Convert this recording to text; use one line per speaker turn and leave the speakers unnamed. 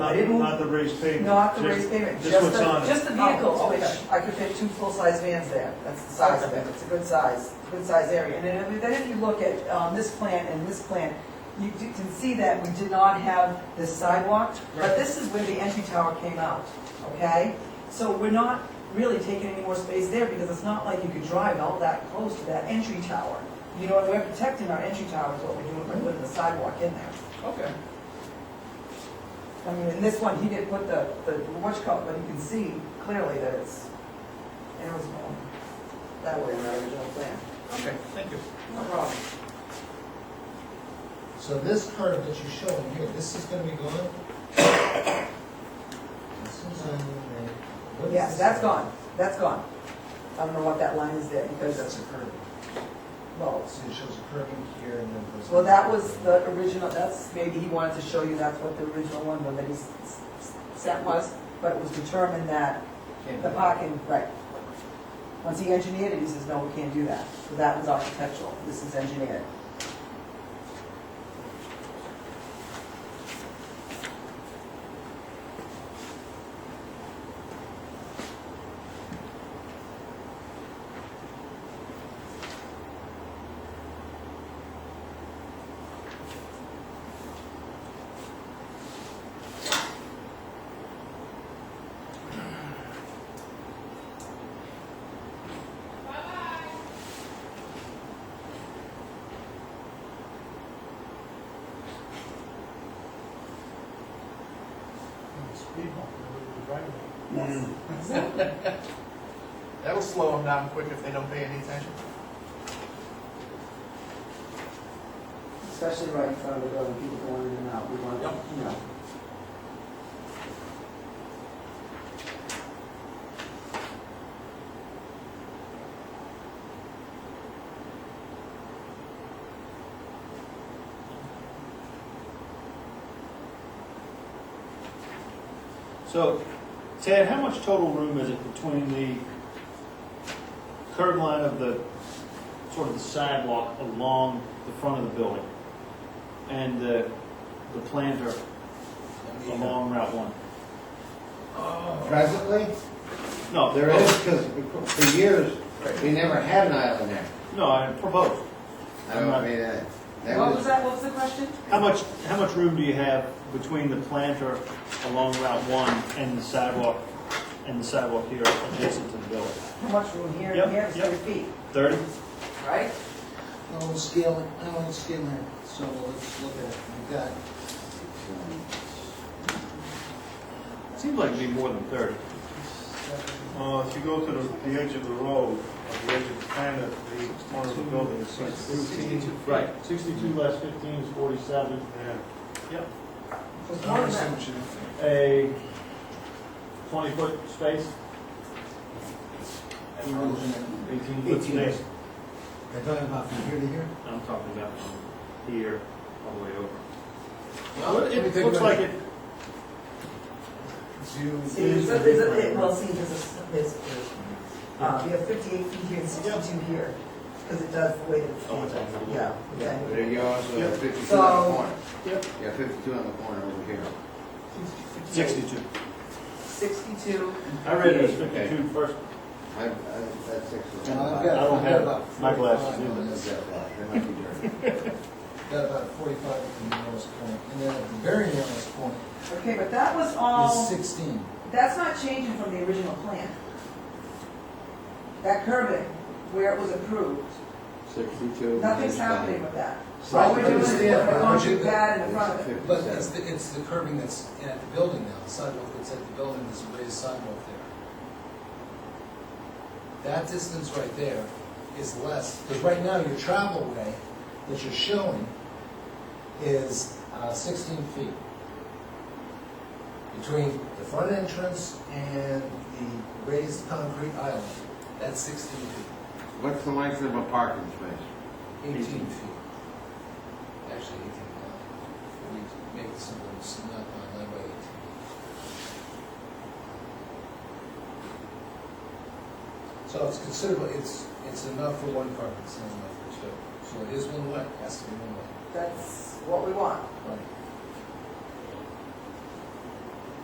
Not,
They moved-
not the raised pavement.
Not the
just-
raised pavement,
just
just
what's
the,
on it.
just the vehicles,
Oh, okay.
which I could fit two full-size vans there. That's the size of it, it's a good size, good size area. And then- then if you look at um, this plan and this plan, you do- can see that we did not have this sidewalk, but
Right.
this is where the entry tower came out, okay? So we're not really taking any more space there because it's not like you could drive all that close to that entry tower. You know, we're protecting our entry tower is what we're doing, we're putting the sidewalk in there.
Okay.
I mean, in this one, he did put the, the watch cup, but you can see clearly that it's, and it was um, that way in the original plan.
Okay, thank you.
No problem.
So this curve that you're showing here, this is gonna be gone? This is, uh, what is
Yeah,
this?
that's gone, that's gone. I don't know what that line is there,
Because
because,
that's a curve.
well,
So it shows a curve in here and then it goes.
well, that was the original, that's, maybe he wanted to show you that's what the original one, was that he s- s- sent was, but it was determined that
Can't
the
be-
parking, right. Once he engineered it, he says, no, we can't do that. So that was architectural, this is engineered.
Speed bump, they're driving.
Yes.
That'll slow them down quick if they don't pay any attention.
Especially right in front of the building, people going in and out, we want,
Yep.
you know.
So, Ted, how much total room is it between the curb line of the, sort of the sidewalk along the front of the building? And the, the planter along Route One?
Presently,
No,
there is, because for years, we never had an island there.
No, I proposed.
I don't- I mean, uh, that
What was
was,
that, what was the question?
How much, how much room do you have between the planter along Route One and the sidewalk, and the sidewalk here adjacent to the building?
How much room here
Yep,
and here, It's
yep.
three feet,
Thirty?
right?
No, let's scale it, no, let's scale it, so let's look at it, we got,
Seems like it'd be more than thirty.
Uh, if you go to the, the edge of the road, or the edge of the planet, the corner of the building is like fifteen.
Right. Sixty-two less fifteen is forty-seven.
Yeah.
There's
I
more than
understand
that.
what you're
a
doing.
twenty-foot space?
We're looking at-
Eighteen-foot space.
They're talking about from here to here?
I'm talking about from here all the way over. Well,
let me
It
think
looks
about
like it,
Zoom
See, there's,
in.
a- there's, a- it- well, see, there's, a- there's, uh, you have fifty-eight feet here and sixty-two here, because it does the way that it's
Oh, it's
handled,
on the-
yeah.
yeah.
okay.
but you also have fifty-two on
So-
the corner.
Yep.
You have fifty-two on the corner over here.
sixty-two.
Sixty-two.
I read it as
Okay.
fifty-two first.
I, I, that's six.
And I've got-
I don't
I've got
have
about
my
45
glasses
on
either.
this.
That might be dirty.
Got about forty-five at the lowest point, and then at the very lowest point
Okay, but that was
is
all,
sixteen.
that's not changing from the original plan. That curbing, where it was approved,
Sixty-two.
nothing's happening with that.
So
All we're doing is putting
understand,
a
but would you-
concrete pad in the front of it.
But it's the, it's the curbing that's at the building now, the sidewalk that's at the building, there's a raised sidewalk there. That distance right there is less, because right now your travel way that you're showing is uh, sixteen feet. Between the front entrance and the raised concrete island, that's sixteen feet,
What's the length of a parking space?
eighteen feet. Actually eighteen, uh, we make it simple, it's not, uh, that way eighteen. So it's considerable, it's, it's enough for one car, it's not enough for two. So it is one way, has to be one way.
That's what we want.
Right.